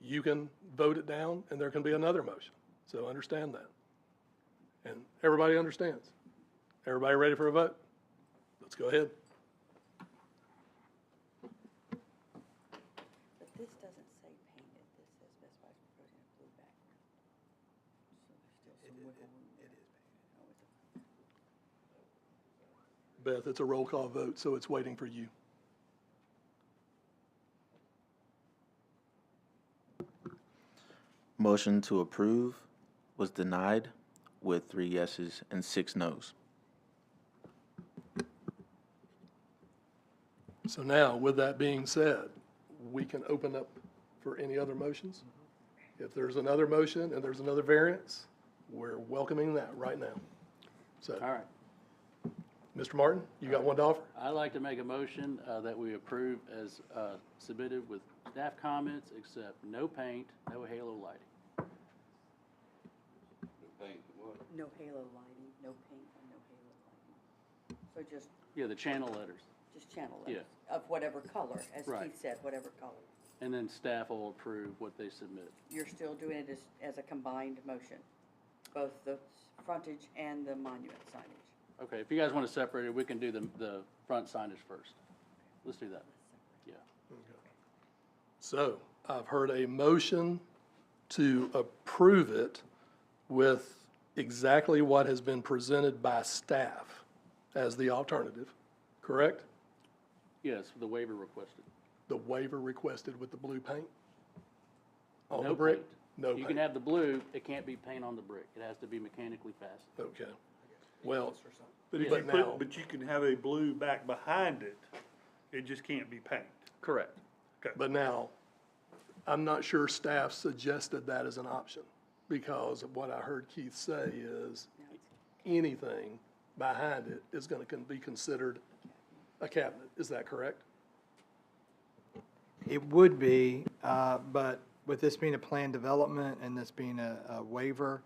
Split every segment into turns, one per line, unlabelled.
you can vote it down and there can be another motion. So understand that. And everybody understands. Everybody ready for a vote? Let's go ahead.
But this doesn't say painted, this says Best Buy's proposing a blue background. So there's still some wiggle room there. Oh, It is painted.
Beth, it's a roll call vote, so it's waiting for you.
Motion to approve was denied with three yeses and six noes.
So now, with that being said, we can open up for any other motions.
Mm-hmm.
If there's another motion and there's another variance, we're welcoming that right now. So,
All right,
Mr. Martin, you got one to offer?
I'd like to make a motion uh, that we approve as uh, submitted with staff comments, except no paint, no halo lighting.
No halo lighting, no paint, and no halo lighting. So just,
Yeah, the channel letters.
just channel
Yeah.
letters of whatever color, as
Right.
Keith said, whatever color.
And then staff will approve what they submit.
You're still doing it as, as a combined motion, both the frontage and the monument signage.
Okay, if you guys want to separate it, we can do the, the front signage first. Let's do that. Yeah.
So I've heard a motion to approve it with exactly what has been presented by staff as the alternative, correct?
Yes, the waiver requested.
The waiver requested with the blue paint? On
No
Oh, the brick?
paint.
No
You can
paint?
have the blue, it can't be paint on the brick. It has to be mechanically fastened.
Okay. Well,
But if
But
you
now-
put, but you can have a blue back behind it, it just can't be painted.
Correct.
but now, I'm not sure staff suggested that as an option because of what I heard Keith say is anything behind it is going to be considered a cabinet. Is that correct?
It would be, uh, but with this being a planned development and this being a a waiver,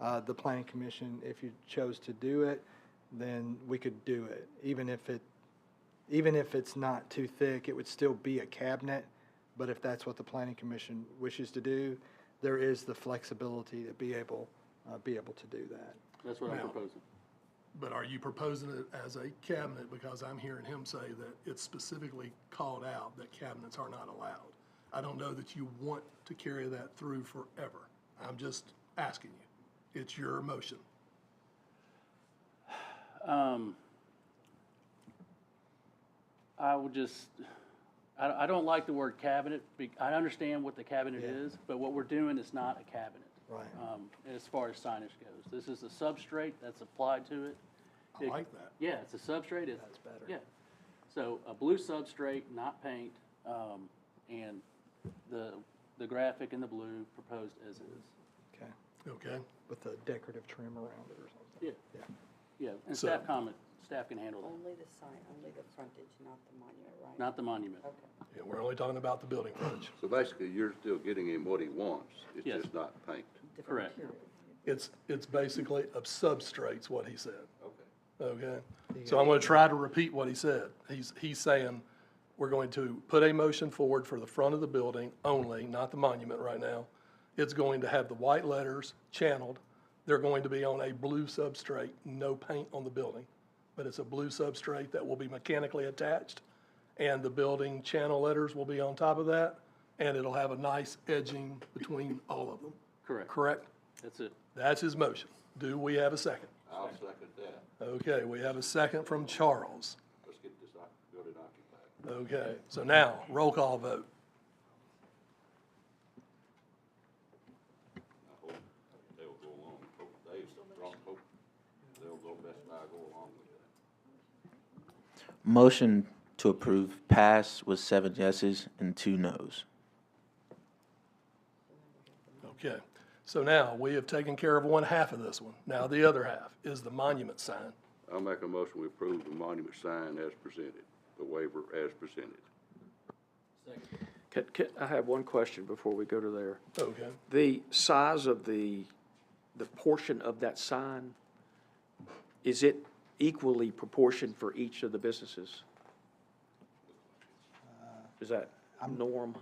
uh, the planning commission, if you chose to do it, then we could do it. Even if it, even if it's not too thick, it would still be a cabinet. But if that's what the planning commission wishes to do, there is the flexibility to be able, uh, be able to do that.
That's what I'm proposing.
But are you proposing it as a cabinet? Because I'm hearing him say that it's specifically called out that cabinets are not allowed. I don't know that you want to carry that through forever. I'm just asking you. It's your motion.
Um, I would just, I, I don't like the word cabinet. be- I understand what the cabinet is, but what we're doing is not a cabinet.
Right.
Um, as far as signage goes, this is the substrate that's applied to it.
I like that.
Yeah, it's a substrate. It's. That's better. Yeah. So a blue substrate, not paint, um, and the, the graphic in the blue proposed as is.
Okay.
Okay?
With a decorative trim around it or something.
Yeah.
Yeah.
Yeah, and
So-
staff comment, staff can handle that,
Only the sign, only the frontage, not the monument, right?
not the monument.
Okay.
Yeah, we're only talking about the building frontage.
So basically, you're still getting him what he wants, it's
Yes.
just not paint.
Different
Correct.
material.
It's, it's basically of substrates, what he said.
Okay.
Okay, so I'm gonna try to repeat what he said. He's, he's saying, we're going to put a motion forward for the front of the building only, not the monument right now. It's going to have the white letters channeled. They're going to be on a blue substrate, no paint on the building. But it's a blue substrate that will be mechanically attached, and the building channel letters will be on top of that, and it'll have a nice edging between all of them,
Correct.
correct?
That's it.
That's his motion. Do we have a second?
I'll second that.
Okay, we have a second from Charles.
Let's get this oc- building occupied.
Okay, so now, roll call vote.
I hope they'll go along, hope they, hope they'll go Best Buy go along with it.
Motion to approve passed with seven yeses and two noes.
Okay, so now, we have taken care of one half of this one. Now, the other half is the monument sign.
I'll make a motion, we approve the monument sign as presented, the waiver as presented.
Can, can, I have one question before we go to there.
Okay,
The size of the, the portion of that sign, is it equally proportioned for each of the businesses? Is that norm?